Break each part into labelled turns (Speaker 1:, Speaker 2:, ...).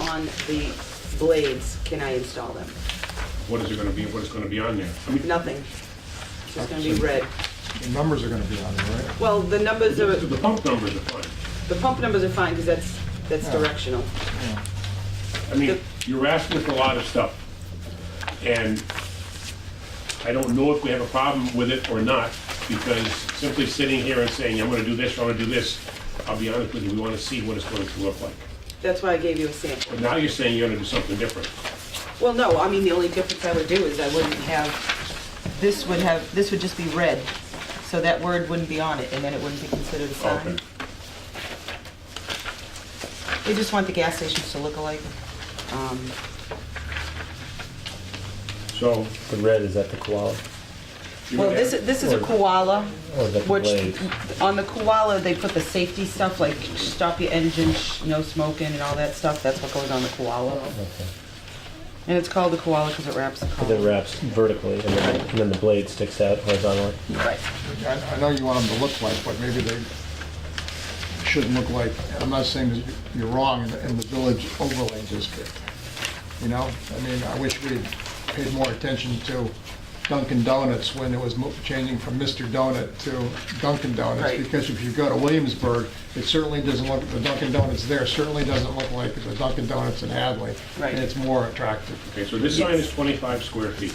Speaker 1: on the blades, can I install them?
Speaker 2: What is it gonna be, what is gonna be on there? I mean,
Speaker 1: Nothing. It's just gonna be red.
Speaker 3: The numbers are gonna be on there, right?
Speaker 1: Well, the numbers are,
Speaker 2: The pump numbers are fine.
Speaker 1: the pump numbers are fine, because that's, that's
Speaker 3: Yeah.
Speaker 1: directional.
Speaker 3: Yeah.
Speaker 2: I mean, you're asking for a lot of stuff. And I don't know if we have a problem with it or not, because simply sitting here and saying, I'm gonna do this, I'm gonna do this, I'll be honest with you, we wanna see what it's going to look like.
Speaker 1: That's why I gave you a sample.
Speaker 2: But now you're saying you're gonna do something different.
Speaker 1: Well, no, I mean, the only difference I would do is I wouldn't have, this would have, this would just be red, so that word wouldn't be on it, and then it wouldn't be considered a
Speaker 2: Okay.
Speaker 1: sign. We just want the gas stations to look alike. Um,
Speaker 2: So,
Speaker 4: The red is at the koala.
Speaker 2: you
Speaker 1: Well,
Speaker 2: would
Speaker 1: this,
Speaker 2: have-
Speaker 1: is- this is a koala,
Speaker 4: Or the
Speaker 1: which,
Speaker 4: blades.
Speaker 1: on the koala, they put the safety stuff, like stop your engine, sh- no smoking and all that stuff, that's what goes on the koala. And it's called the koala because it wraps the
Speaker 4: It
Speaker 1: koala.
Speaker 4: wraps vertically, and then, and then the blade sticks out horizontally.
Speaker 1: Right.
Speaker 3: I, I know you want them to look like, but maybe they shouldn't look like, I'm not saying that you're wrong in the, in the village overlay district. You know, I mean, I wish we paid more attention to Dunkin' Donuts when it was mo- changing from Mr. Donut to Dunkin' Donuts.
Speaker 1: Right.
Speaker 3: Because if you go to Williamsburg, it certainly doesn't look, the Dunkin' Donuts there certainly doesn't look like the Dunkin' Donuts in Hadley.
Speaker 1: Right.
Speaker 3: And it's more attractive.
Speaker 2: Okay, so this sign is 25 square feet.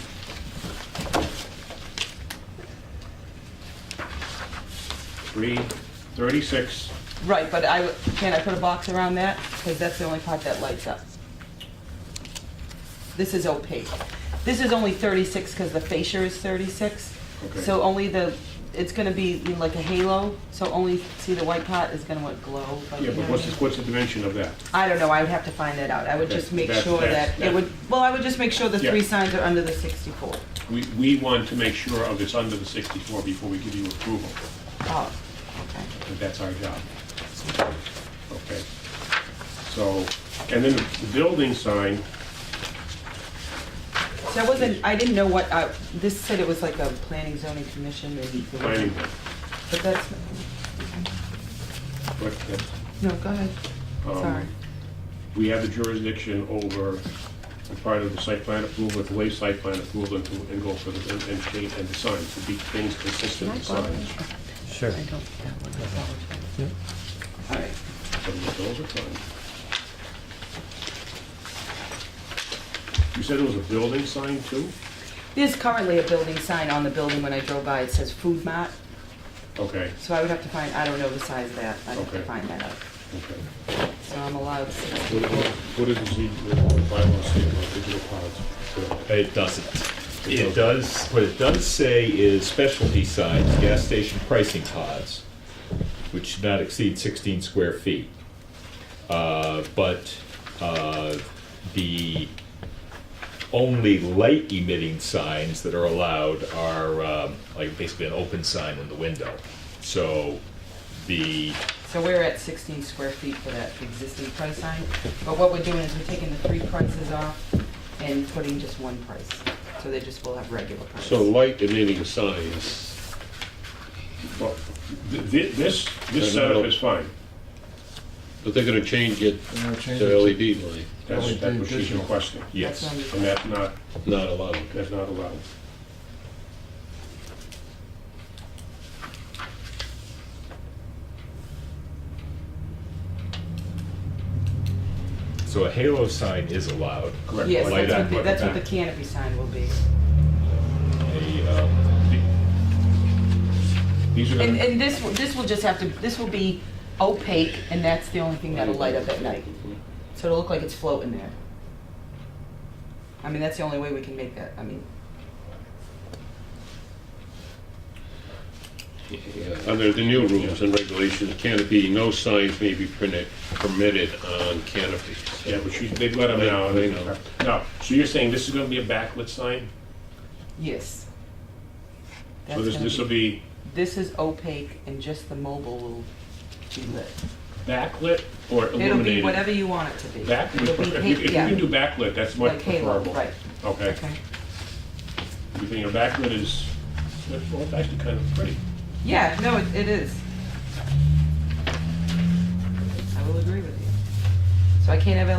Speaker 2: Three, 36,
Speaker 1: Right, but I, w- can I put a box around that? Because that's the only part that lights up. This is opaque. This is only 36 because the fascia is 36.
Speaker 2: Okay.
Speaker 1: So only the, it's going to be like a halo, so only, see the white part is going to what glow. like,
Speaker 2: yeah,
Speaker 1: you know
Speaker 2: but
Speaker 1: what I
Speaker 2: what's,
Speaker 1: mean?
Speaker 2: the- what's the dimension of that?
Speaker 1: I don't know, I would have to find that out. I would
Speaker 2: Okay,
Speaker 1: just make
Speaker 2: that's-
Speaker 1: sure
Speaker 2: that's-
Speaker 1: that, it would, well, I would just make sure the three
Speaker 2: Yeah.
Speaker 1: signs are under the 64.
Speaker 2: We, we want to make sure of it's under the 64 before we give you approval,
Speaker 1: Oh, okay.
Speaker 2: and that's our job. Okay. So, and then the building sign,
Speaker 1: So I wasn't, I didn't know what, I- this said it was like a planning zoning commission, maybe.
Speaker 2: planning, board,
Speaker 1: But that's,
Speaker 2: but that's,
Speaker 1: no, go ahead,
Speaker 2: um,
Speaker 1: sorry.
Speaker 2: we have the jurisdiction over the part of the site plan approval, the wave site plan approval, and to- and go for the, and, and change- and the sign, to be things consistent with signs.
Speaker 4: Sure.
Speaker 1: I don't, that one, I
Speaker 4: Yeah.
Speaker 1: apologize. All right,
Speaker 2: But Those are fine. You said it was a building sign too?
Speaker 1: there's currently a building sign on the building when I drove by, it says food mart,
Speaker 2: Okay,
Speaker 1: so I would have to find, I don't know the size of that, I'd have to
Speaker 2: Okay.
Speaker 1: find that out.
Speaker 2: okay.
Speaker 1: So I'm allowed 60.
Speaker 2: What what is the Z- the bylaw statement on digital pods?
Speaker 5: It doesn't. It does, what it does say is specialty signs, gas station pricing pods, which should not exceed 16 square feet. Uh, But uh, the only light emitting signs that are allowed are um, like basically an open sign in the window. So the,
Speaker 1: So we're at 16 square feet for that existing price sign, but what we're doing is we're taking the three prices off and putting just one price, so they just will have regular price.
Speaker 6: So light emitting signs,
Speaker 2: Well, th- thi- This, this setup is fine.
Speaker 6: but they're gonna change it
Speaker 3: You know, change it
Speaker 6: to LED light,
Speaker 2: That's that's what she's
Speaker 3: Digital.
Speaker 2: requesting.
Speaker 1: That's
Speaker 5: yes,
Speaker 1: what I'm-
Speaker 2: And that's not,
Speaker 6: not allowed.
Speaker 2: that's not allowed.
Speaker 5: so a halo sign is allowed.
Speaker 2: Correct.
Speaker 1: Yes,
Speaker 5: Light
Speaker 1: that's what
Speaker 5: up,
Speaker 1: the-
Speaker 5: light
Speaker 1: that's what the
Speaker 5: back.
Speaker 1: canopy sign will be.
Speaker 5: A, um,
Speaker 2: um, These are
Speaker 1: And,
Speaker 2: gonna,
Speaker 1: and this, will- this will just have to, this will be opaque, and that's the only thing that'll light up at night. So it'll look like it's floating there. I mean, that's the only way we can make that, I mean,
Speaker 6: Yeah, Under the new rules and regulations, canopy, no signs may be printed, permitted on canopies.
Speaker 2: yeah, but she's, they've let them know.
Speaker 6: They know.
Speaker 2: Now, so you're saying this is gonna be a backlit sign?
Speaker 1: yes.
Speaker 2: So
Speaker 1: That's
Speaker 2: this,
Speaker 1: gonna
Speaker 2: this will be
Speaker 1: This is opaque, and just the mobile will be lit.
Speaker 2: backlit or
Speaker 1: It'll be
Speaker 2: illuminated?
Speaker 1: whatever you want it to be.
Speaker 2: Back, if you
Speaker 1: It'll be
Speaker 2: if
Speaker 1: pa-
Speaker 2: you- if you
Speaker 1: yeah,
Speaker 2: can do backlit, that's much
Speaker 1: Like halo,
Speaker 2: preferable.
Speaker 1: right,
Speaker 2: Okay.
Speaker 1: okay.
Speaker 2: You think a backlit is, well, it's actually kind of pretty.
Speaker 1: Yeah, no, it, it is. I will agree with you. So I can't have